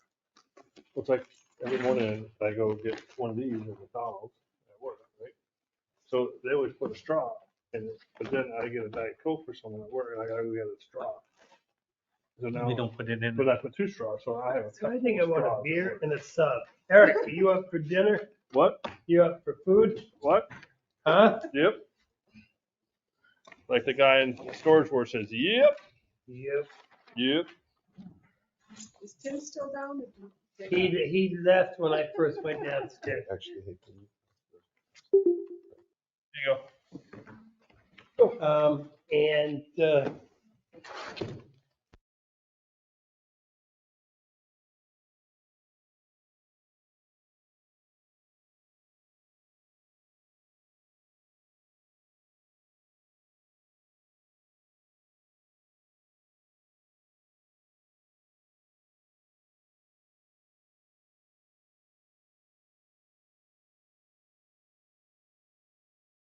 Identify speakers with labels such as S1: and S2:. S1: It's like every morning I go get one of these at McDonald's at work, right? So they always put a straw in it, but then I get a Diet Coke for someone at work and I gotta go get a straw. So now,
S2: They don't put it in.
S1: but I put two straws, so I have. a
S3: So I
S1: couple
S3: think I
S1: of
S3: want a
S1: straws at
S3: beer
S1: work.
S3: and a sub. Eric, are you up for dinner?
S1: What,
S3: You up for food?
S1: what?
S3: Huh?
S1: Yep. Like the guy in Storage Wars says, yep,
S3: Yep.
S1: yep.
S4: Is Tim still down?
S3: He, he left when I first went downstairs.
S5: Actually, hey, can you-
S1: There you go.
S3: Um, and, uh,